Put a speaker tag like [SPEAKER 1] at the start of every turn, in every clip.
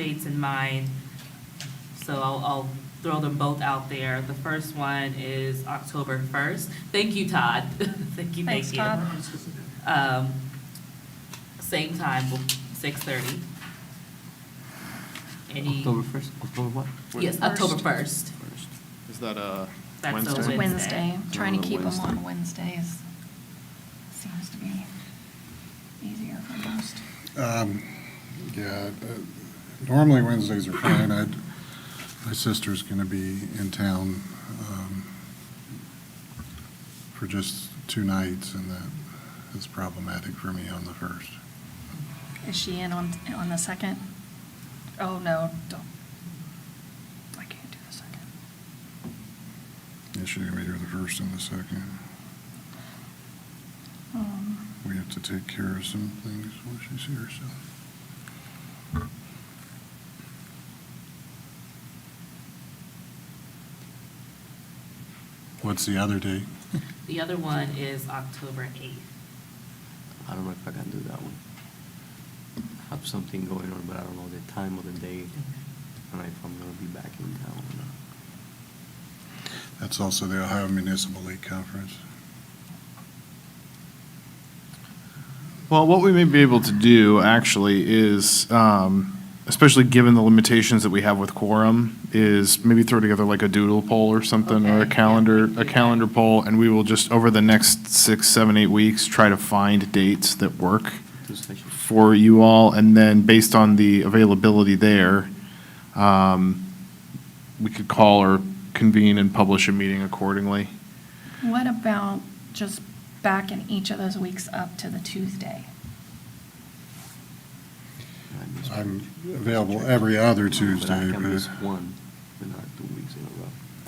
[SPEAKER 1] dates in mind, so I'll, I'll throw them both out there. The first one is October first. Thank you, Todd. Thank you,
[SPEAKER 2] Thanks,
[SPEAKER 1] thank you.
[SPEAKER 2] Todd.
[SPEAKER 1] Um, same time, six thirty. Any,
[SPEAKER 3] October first, October what?
[SPEAKER 1] yes, October first.
[SPEAKER 3] First.
[SPEAKER 4] Is that a
[SPEAKER 1] That's a
[SPEAKER 2] It's
[SPEAKER 4] Wednesday?
[SPEAKER 1] Wednesday.
[SPEAKER 2] Wednesday,
[SPEAKER 5] Uh,
[SPEAKER 2] trying to keep them
[SPEAKER 3] Wednesday.
[SPEAKER 2] on Wednesdays seems to be easier for most.
[SPEAKER 5] Um, Yeah, uh, normally Wednesdays are fine. I'd, my sister's going to be in town um, for just two nights, and that is problematic for me on the first.
[SPEAKER 2] Is she in on, on the second? Oh, no, don't. I can't do the second.
[SPEAKER 5] Yeah, she's going to be here the first and the second.
[SPEAKER 2] Um,
[SPEAKER 5] We have to take care of some things while she's here, so. What's the other date?
[SPEAKER 1] The other one is October eighth.
[SPEAKER 3] I don't know if I can do that one. I Have something going on, but I don't know the time of the day and if I'm gonna be back in town or not.
[SPEAKER 5] That's also the Ohio Municipal League Conference.
[SPEAKER 4] Well, what we may be able to do actually is, um, especially given the limitations that we have with quorum, is maybe throw together like a doodle poll or something, or a
[SPEAKER 1] Okay.
[SPEAKER 4] calendar,
[SPEAKER 1] Yeah, we can
[SPEAKER 4] a
[SPEAKER 1] do
[SPEAKER 4] calendar
[SPEAKER 1] that.
[SPEAKER 4] poll, and we will just, over the next six, seven, eight weeks, try to find dates that work
[SPEAKER 3] Two sessions.
[SPEAKER 4] for you all, and then based on the availability there, um, we could call or convene and publish a meeting accordingly.
[SPEAKER 2] What about just backing each of those weeks up to the Tuesday?
[SPEAKER 3] I miss one.
[SPEAKER 5] I'm available every other
[SPEAKER 3] But I
[SPEAKER 5] Tuesday,
[SPEAKER 3] can miss
[SPEAKER 5] but,
[SPEAKER 3] one, but not two weeks in a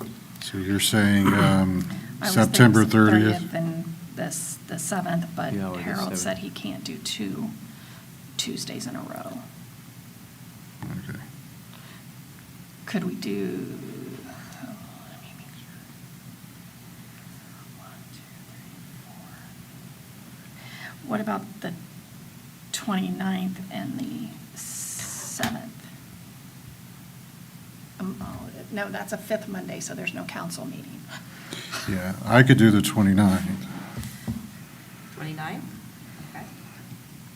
[SPEAKER 3] row.
[SPEAKER 5] so you're saying um,
[SPEAKER 2] I was thinking
[SPEAKER 5] September 30th?
[SPEAKER 2] And this, the seventh, but
[SPEAKER 3] Yeah, or the
[SPEAKER 2] Harold
[SPEAKER 3] 7th.
[SPEAKER 2] said he can't do two Tuesdays in a row.
[SPEAKER 5] Okay.
[SPEAKER 2] Could we do? oh, let me make sure. One, two, three, four. What about the 29th and the 7th? Um, oh, No, that's a fifth Monday, so there's no council meeting.
[SPEAKER 5] Yeah, I could do the 29th.
[SPEAKER 1] Twenty-ninth? Okay.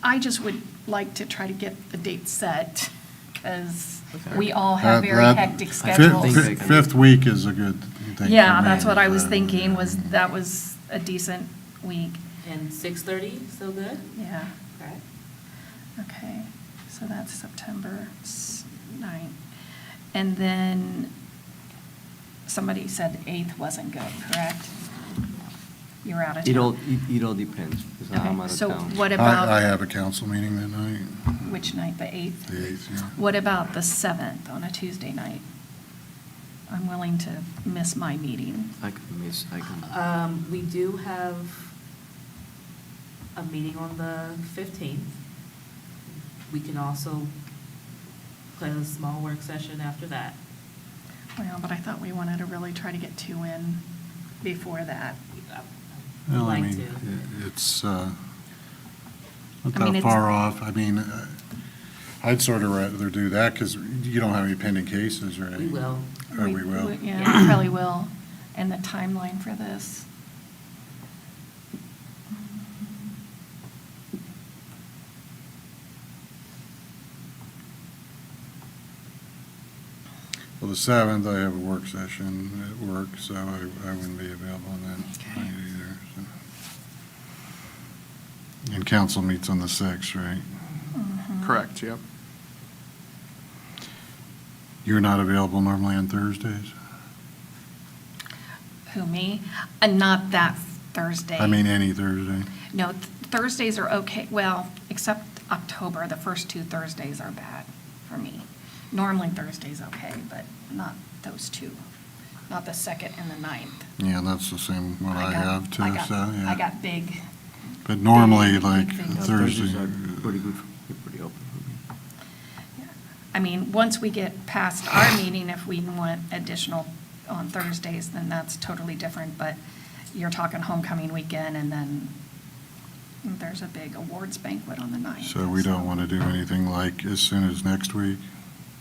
[SPEAKER 2] I just would like to try to get the date set because we
[SPEAKER 3] Okay.
[SPEAKER 2] all have
[SPEAKER 5] That-
[SPEAKER 2] very
[SPEAKER 5] that-
[SPEAKER 2] hectic
[SPEAKER 5] fi-
[SPEAKER 2] schedules.
[SPEAKER 5] fi- Fifth week is a good thing.
[SPEAKER 2] Yeah,
[SPEAKER 5] for me,
[SPEAKER 2] that's what I was
[SPEAKER 5] but-
[SPEAKER 2] thinking, was, that was a decent week,
[SPEAKER 1] And six thirty, still good?
[SPEAKER 2] yeah.
[SPEAKER 1] Okay.
[SPEAKER 2] Okay, so that's September s- 9th. And then, somebody said 8th wasn't good, correct? you were out of town.
[SPEAKER 3] It all, it, it all depends, 'cause
[SPEAKER 2] Okay,
[SPEAKER 3] I'm out of
[SPEAKER 2] so
[SPEAKER 3] town.
[SPEAKER 2] what
[SPEAKER 5] I-
[SPEAKER 2] about-
[SPEAKER 5] I have a council meeting that night.
[SPEAKER 2] Which night, the 8th?
[SPEAKER 5] The 8th, yeah.
[SPEAKER 2] What about the 7th on a Tuesday night? I'm willing to miss my meeting.
[SPEAKER 3] I can miss, I can,
[SPEAKER 1] Um, we do have a meeting on the fifteenth. We can also plan a small work session after that.
[SPEAKER 2] Well, but I thought we wanted to really try to get two in before that.
[SPEAKER 1] We'd
[SPEAKER 5] Well, I
[SPEAKER 1] like
[SPEAKER 5] mean,
[SPEAKER 1] to.
[SPEAKER 5] i- It's uh, not
[SPEAKER 2] I mean,
[SPEAKER 5] that
[SPEAKER 2] it's-
[SPEAKER 5] far off. I mean, uh, I'd sort of rather do that because you don't have any pending cases, right?
[SPEAKER 1] We will.
[SPEAKER 5] Or we will.
[SPEAKER 2] Yeah, we probably will. And the timeline for this?
[SPEAKER 5] Well, the 7th, I have a work session at work, so I I wouldn't be available on that
[SPEAKER 2] Okay.
[SPEAKER 5] night either. so. And council meets on the 6th, right?
[SPEAKER 2] Mhm.
[SPEAKER 4] Correct, yep.
[SPEAKER 5] You're not available normally on Thursdays?
[SPEAKER 2] Who, me? And not that Thursday.
[SPEAKER 5] I mean, any Thursday.
[SPEAKER 2] No, th- Thursdays are okay, well, except October, the first two Thursdays are bad for me. Normally Thursday's okay, but not those two, not the second and the ninth.
[SPEAKER 5] Yeah, that's the same one I
[SPEAKER 2] got-
[SPEAKER 5] have too, so,
[SPEAKER 2] I got-
[SPEAKER 5] yeah.
[SPEAKER 2] I got big.
[SPEAKER 5] But normally,
[SPEAKER 2] big
[SPEAKER 5] like
[SPEAKER 2] things.
[SPEAKER 3] Thursdays
[SPEAKER 5] Thursday.
[SPEAKER 3] are pretty good, for- pretty open for me.
[SPEAKER 2] I mean, once we get past our meeting, if we want additional on Thursdays, then that's totally different, but you're talking homecoming weekend, and then there's a big awards banquet on the ninth.
[SPEAKER 5] So we don't want to do anything like as soon as next week?